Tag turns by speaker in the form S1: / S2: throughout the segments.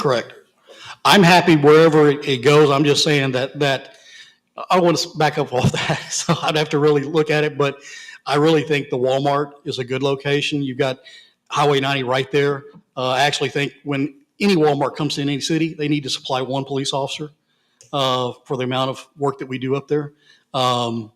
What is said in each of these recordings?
S1: Correct. I'm happy wherever it it goes. I'm just saying that, that, I want to back up off that. So I'd have to really look at it, but I really think the Walmart is a good location. You've got Highway 90 right there. Uh, I actually think when any Walmart comes in any city, they need to supply one police officer uh, for the amount of work that we do up there. Um,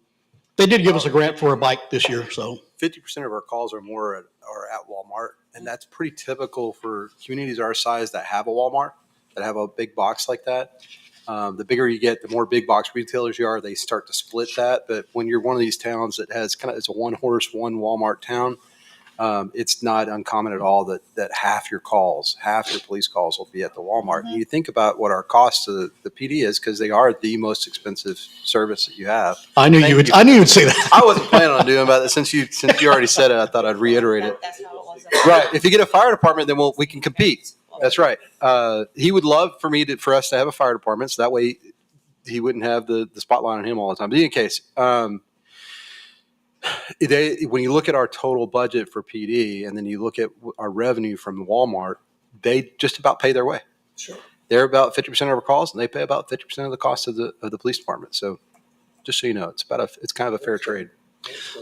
S1: They did give us a grant for a bike this year, so.
S2: fifty percent of our calls or more at, are at Walmart, and that's pretty typical for communities our size that have a Walmart, that have a big box like that. Um, the bigger you get, the more big box retailers you are. They start to split that. But when you're one of these towns that has kind of it's a one horse, one Walmart town, um, it's not uncommon at all that that half your calls, half your police calls, will be at the Walmart. And you think about what our cost to the, the PD is because they are the most expensive service that you have.
S1: I knew you
S2: Thank
S1: would,
S2: you.
S1: I knew you'd say that.
S2: I wasn't planning on doing about that since you since you already said it. I thought I'd reiterate it.
S3: That- That's how it was.
S2: Right. If you get a fire department, then we'll, we can compete. That's right. Uh, he would love for me to, for us to have a fire department. So that way he wouldn't have the, the spotlight on him all the time. But in any case, um, they, when you look at our total budget for PD and then you look at our revenue from Walmart, they just about pay their way.
S1: Sure.
S2: They're about 50% of our calls and they pay about 50% of the cost of the, of the police department. So just so you know, it's about a, it's kind of a fair trade.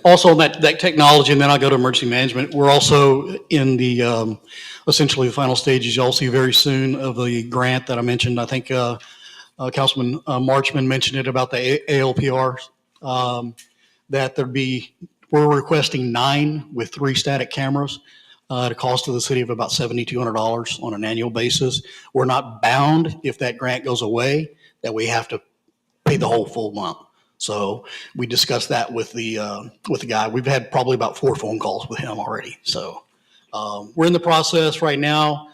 S1: Also, on that, that technology, and then I'll go to emergency management. We're also in the, um, essentially the final stages, you'll see very soon, of the grant that I mentioned. I think uh, uh, Councilman uh, Marchman mentioned it about the A- ALPR, um, that there'd be, we're requesting nine with three static cameras uh, at a cost to the city of about $7,200 on an annual basis. We're not bound if that grant goes away, that we have to pay the whole full amount. So we discussed that with the, uh, with the guy. We've had probably about four phone calls with him already. So um, we're in the process right now.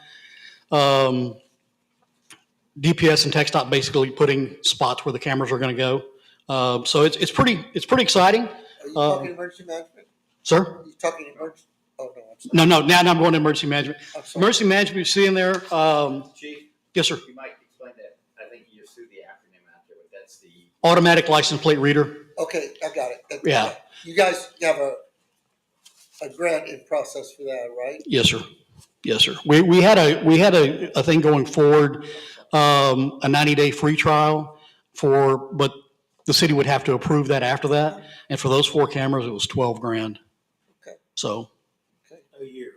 S1: Um, DPS and Tech Stop basically putting spots where the cameras are going to go. Uh, So it's, it's pretty, it's pretty exciting.
S4: Are you
S1: Uh,
S4: talking emergency management?
S1: Sir?
S4: Are you talking emergency? Oh, no, I'm sorry.
S1: No, no, now I'm going to emergency management.
S4: I'm sorry.
S1: Emergency management, you see in there, um,
S5: Chief,
S1: yes, sir,
S5: you might explain that, I think you just threw the acronym out there, but that's the
S1: automatic license plate reader.
S4: Okay, I got it. That-
S1: Yeah.
S4: You guys have a, a grant in process for that, right?
S1: Yes, sir. Yes, sir. We, we had a, we had a, a thing going forward, um, a 90-day free trial for, but the city would have to approve that after that. And for those four cameras, it was 12 grand.
S4: Okay.
S1: So,
S5: A year.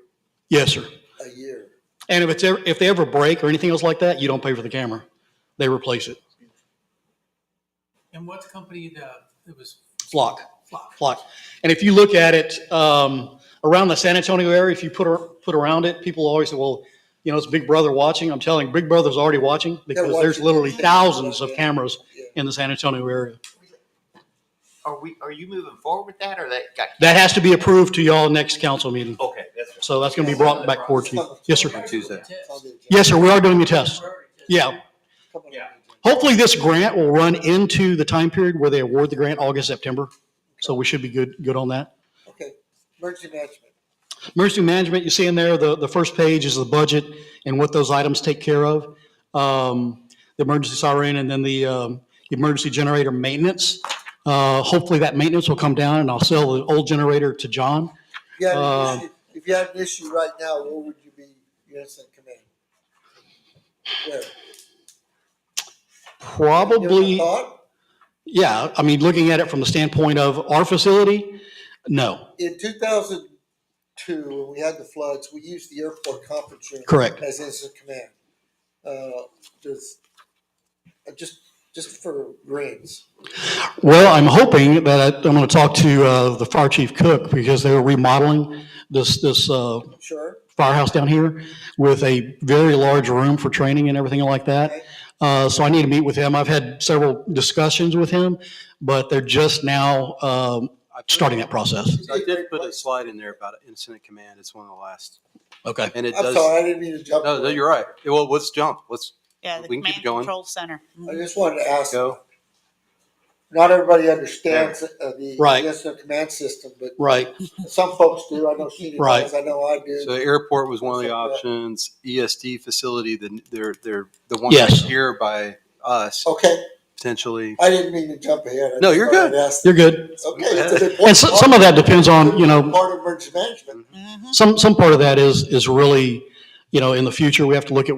S1: yes, sir.
S4: A year.
S1: And if it's, ever- if they ever break or anything else like that, you don't pay for the camera. They replace it.
S6: And what company the, it was?
S1: Flock.
S6: Flock.
S1: Flock. And if you look at it, um, around the San Antonio area, if you put, ar- put around it, people always say, well, you know, it's Big Brother watching. I'm telling, you, Big Brother's already watching because there's
S4: watching.
S1: literally thousands of
S4: Yeah.
S1: cameras
S4: Yeah.
S1: in the San Antonio area.
S5: Are we, are you moving forward with that, or that got?
S1: That has to be approved to y'all next council meeting.
S5: Okay, that's.
S1: So that's going to be brought back forward to you. Yes, sir.
S5: Tuesday.
S4: It's on the agenda.
S1: Yes, sir. We are doing the test. Yeah.
S4: Come on.
S5: Yeah.
S1: Hopefully this grant will run into the time period where they award the grant, August, September. So we should be good, good on that.
S4: Okay, emergency management.
S1: Emergency management, you see in there, the, the first page is the budget and what those items take care of. Um, The emergency siren and then the um, emergency generator maintenance. Uh, Hopefully that maintenance will come down and I'll sell the old generator to John.
S4: Yeah,
S1: Um,
S4: if you had an issue right now, where would you be, your instant command? Where?
S1: Probably,
S4: Your thought?
S1: yeah, I mean, looking at it from the standpoint of our facility, no,
S4: In two thousand two, when we had the floods, we used the airport conference room.
S1: correct.
S4: as instant command. Uh, Does, uh, just, just for grins.
S1: Well, I'm hoping that I'm going to talk to uh, the fire chief Cook because they were remodeling this, this uh,
S4: sure?
S1: firehouse down here with a very large room for training and everything like that. Uh, so I need to meet with him. I've had several discussions with him, but they're just now, um, starting that process.
S2: I did put a slide in there about incident command. It's one of the last,
S1: Okay.
S2: and it
S4: I'm
S2: does.
S4: sorry, I didn't mean to jump.
S2: No, no, you're right. Well, let's jump. Let's
S3: Yeah, the
S2: We can keep
S3: command
S2: going.
S3: control center.
S4: I just wanted to ask,
S2: go.
S4: not everybody understands uh, the
S1: Right.
S4: instant command system, but
S1: Right.
S4: some folks do. I know she
S1: Right.
S4: does, I know I
S2: So
S4: do.
S2: airport was one of the options. ESD facility, the, they're, they're the one
S1: Yes.
S2: here by us
S4: Okay,
S2: potentially.
S4: I didn't mean to jump ahead. I
S2: No,
S4: just
S2: you're
S4: thought I'd
S2: good.
S4: ask.
S1: You're good.
S4: Okay, it's an
S1: And
S4: important
S1: so-
S4: part-
S1: some of that depends on, you know,
S4: Part of emergency management.
S3: Mhm.
S1: some, some part of that is, is really, you know, in the future, we have to look at